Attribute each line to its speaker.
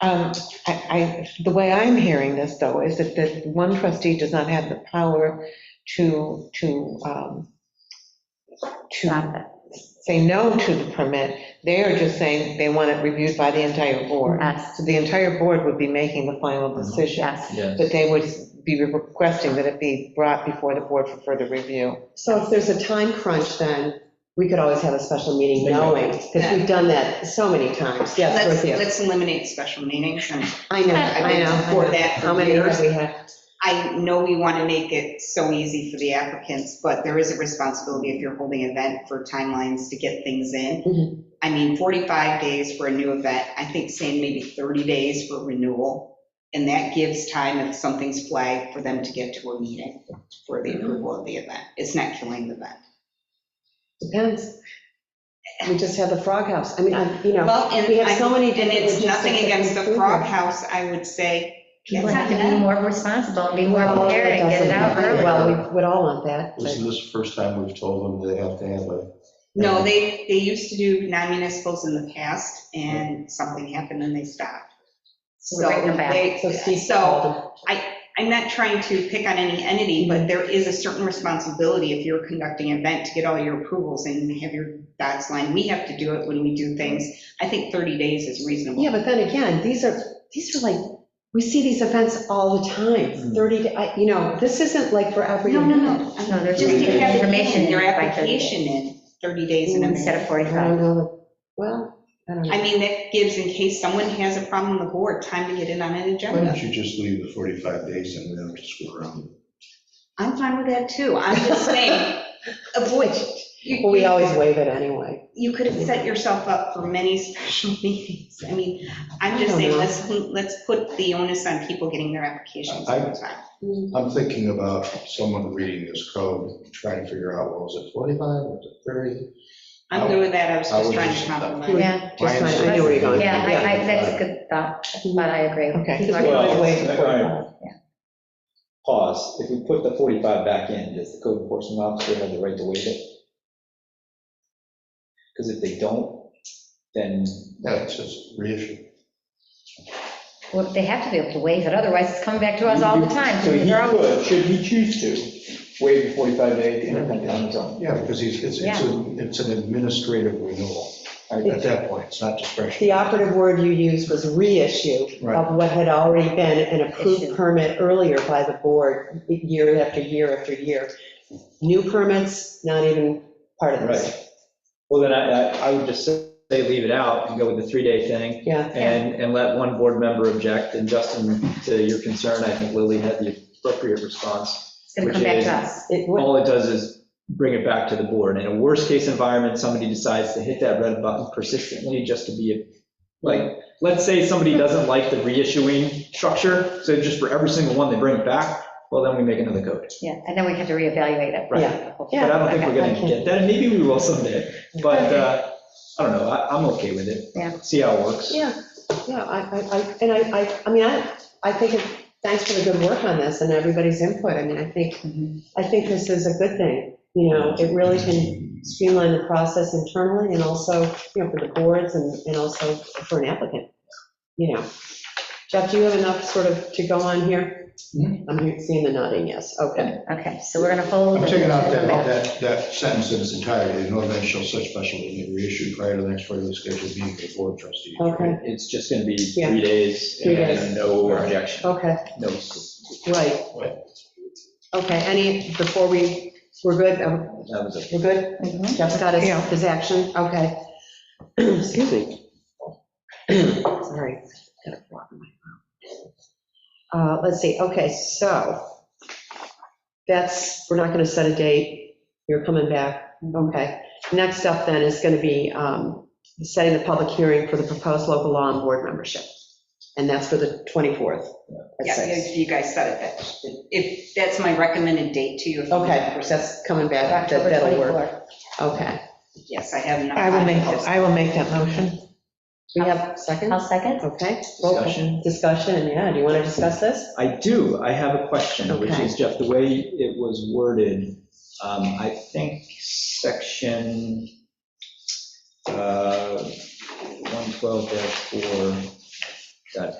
Speaker 1: Um, I, I, the way I'm hearing this, though, is that, that one trustee does not have the power to, to, um, to
Speaker 2: Stop it.
Speaker 1: say no to the permit. They are just saying they want it reviewed by the entire board.
Speaker 2: Yes,
Speaker 1: So the entire board would be making the final decision,
Speaker 2: yes.
Speaker 3: Yes.
Speaker 1: but they would be requesting that it be brought before the board for further review.
Speaker 4: So if there's a time crunch, then we could always have a special meeting
Speaker 3: Bingo.
Speaker 4: knowing, because we've done that so many times. Yes,
Speaker 5: Let's,
Speaker 4: with you.
Speaker 5: let's eliminate special meetings, and
Speaker 4: I know,
Speaker 5: I've
Speaker 4: I
Speaker 5: been
Speaker 4: know. I
Speaker 5: for
Speaker 4: know.
Speaker 5: that for
Speaker 4: How many have
Speaker 5: years.
Speaker 4: we had?
Speaker 5: I know we want to make it so easy for the applicants, but there is a responsibility if you're holding an event for timelines to get things
Speaker 4: Mhm.
Speaker 5: in. I mean, 45 days for a new event, I think saying maybe 30 days for renewal, and that gives time if something's flagged for them to get to a meeting for
Speaker 4: Mm-hmm.
Speaker 5: the approval of the event. It's not killing the event.
Speaker 4: Depends. We just had the Frog House. I mean, I- you know,
Speaker 5: Well, and
Speaker 4: we have so
Speaker 5: I-
Speaker 4: many
Speaker 5: and
Speaker 4: different.
Speaker 5: it's nothing
Speaker 4: logistics
Speaker 5: against the
Speaker 4: that we
Speaker 5: Frog
Speaker 4: do.
Speaker 5: House, I would say.
Speaker 2: People
Speaker 5: it's
Speaker 2: have to
Speaker 5: not
Speaker 2: be more responsible and be more
Speaker 4: Well,
Speaker 2: prepared
Speaker 4: that
Speaker 2: and get it
Speaker 4: doesn't
Speaker 2: out
Speaker 4: happen.
Speaker 2: early.
Speaker 4: Well, we would all want that. but-
Speaker 6: Isn't this the first time we've told them they have to have a?
Speaker 5: No, they, they used to do non-municipals in the past, and something happened and they stopped. So
Speaker 2: Bring them back.
Speaker 5: they,
Speaker 4: So Steve
Speaker 5: so
Speaker 4: called them.
Speaker 5: I'm not trying to pick on any entity, but there is a certain responsibility if you're conducting an event to get all your approvals and have your dots lined. We have to do it when we do things. I think 30 days is reasonable.
Speaker 4: Yeah, but then again, these are, these are like, we see these events all the time, 30, to- I- you know, this isn't like for every.
Speaker 5: No, no, no.
Speaker 2: No, there's
Speaker 5: Just to
Speaker 2: the
Speaker 5: have
Speaker 2: information
Speaker 5: information, your
Speaker 2: by 30 days.
Speaker 5: application in 30 days in advance.
Speaker 2: Instead of
Speaker 4: I
Speaker 2: 45.
Speaker 4: don't know, well, I don't know.
Speaker 5: I mean, that gives, in case someone has a problem with the board, time to get in on an
Speaker 6: Why
Speaker 5: agenda.
Speaker 6: don't you just leave the 45 days and we don't have to screw around?
Speaker 5: I'm fine with that too. I'm just saying, avoid. you-
Speaker 4: Well, we always waive it anyway.
Speaker 5: You could have set yourself up for many special meetings. I mean, I'm just saying, let's, let's put the onus on people getting their applications
Speaker 6: I-
Speaker 5: on time.
Speaker 6: I'm thinking about someone reading this code, and trying to figure out, well, was it 45, was it 30?
Speaker 5: I'm good with that. I was
Speaker 6: I
Speaker 5: just
Speaker 6: would
Speaker 5: trying to
Speaker 6: just-
Speaker 5: compromise.
Speaker 2: Yeah,
Speaker 4: Just
Speaker 6: Mine's-
Speaker 4: fine, I knew where you're going.
Speaker 2: yeah, I, I, that's a good thought, but I agree.
Speaker 1: Okay.
Speaker 2: People are-
Speaker 1: Well,
Speaker 3: Pause, if we put the 45 back in, does the code enforcement officer have the right to waive it? Because if they don't, then,
Speaker 6: No, it's just reissue.
Speaker 2: Well, they have to be able to waive it, otherwise it's coming back to us all the time.
Speaker 3: so he
Speaker 2: They're all-
Speaker 3: could, should he choose to, waive the 45 days and everything on his own.
Speaker 6: Yeah, because he's, it's, it's an- it's an administrative renewal at that point, it's not discretionary.
Speaker 4: The operative word you used was reissue
Speaker 6: Right.
Speaker 4: of what had already been an
Speaker 2: Issue.
Speaker 4: approved permit earlier by the board, year after year after year. New permits, not even part of this.
Speaker 3: Right. Well, then I, I- I would just say leave it out and go with the three-day thing
Speaker 4: Yeah,
Speaker 2: Yeah.
Speaker 3: and, and let one board member object. And Justin, to your concern, I think Lily had the appropriate response.
Speaker 2: It's gonna come back to us.
Speaker 4: it would,
Speaker 3: All it does is bring it back to the board. In a worst-case environment, somebody decides to hit that red button persistently just to be, like, let's say somebody doesn't like the reissuing structure, so just for every single one, they bring it back, well, then we make another code.
Speaker 2: Yeah, and then we have to reevaluate it.
Speaker 3: Right.
Speaker 4: Yeah.
Speaker 3: But I don't think we're
Speaker 2: Okay.
Speaker 3: going to get that, and maybe we will someday, but uh, I don't know, I- I'm okay with it.
Speaker 2: Yeah.
Speaker 3: See how it works.
Speaker 4: yeah, yeah, I, I- I, and I, I, I mean, I, I think, it- thanks for the good work on this and everybody's input. I mean, I think,
Speaker 5: Mhm.
Speaker 4: I think this is a good thing. You know, it really can streamline the process internally and also, you know, for the boards and, and also for an applicant, you know. Jeff, do you have enough sort of to go on here? I'm hearing- seeing the nodding, yes, okay.
Speaker 2: Okay, so we're gonna hold.
Speaker 6: I'm taking out that,
Speaker 2: Okay.
Speaker 6: that, that sentence in its entirety, no event shall such special meeting reissue prior to the next regularly scheduled meeting of the board of trustees.
Speaker 4: Okay,
Speaker 3: It's just going to be
Speaker 4: Yeah.
Speaker 3: three days
Speaker 4: Three days.
Speaker 3: and no objection,
Speaker 4: okay,
Speaker 3: no.
Speaker 4: right.
Speaker 6: Right.
Speaker 4: Okay, any, before we, we're good, um,
Speaker 3: that was it.
Speaker 4: We're good?
Speaker 2: Mhm.
Speaker 4: Jeff's got his, his action, okay. Excuse me. Sorry. got a frog in my mouth. Uh, Let's see, okay, so that's, we're not going to set a date, you're coming back, okay. Next up then is going to be um, setting the public hearing for the proposed local law and board membership. And that's for the 24th. at
Speaker 5: Yeah,
Speaker 4: six.
Speaker 5: if you guys said it, that, if, that's my recommended date to you. if you
Speaker 4: Okay,
Speaker 5: want to-
Speaker 4: that's coming back, that-
Speaker 2: October
Speaker 4: that'll work,
Speaker 2: 24th.
Speaker 4: okay.
Speaker 5: Yes, I have enough.
Speaker 1: I will make,
Speaker 5: time.
Speaker 1: I will make that motion.
Speaker 4: We have seconds?
Speaker 2: I'll second.
Speaker 4: Okay,
Speaker 3: Discussion.
Speaker 4: well, discussion, yeah, do you want to discuss this?
Speaker 3: I do, I have a question, which
Speaker 4: Okay.
Speaker 3: is, Jeff, the way it was worded, um, I think section uh, 112-4, Got it.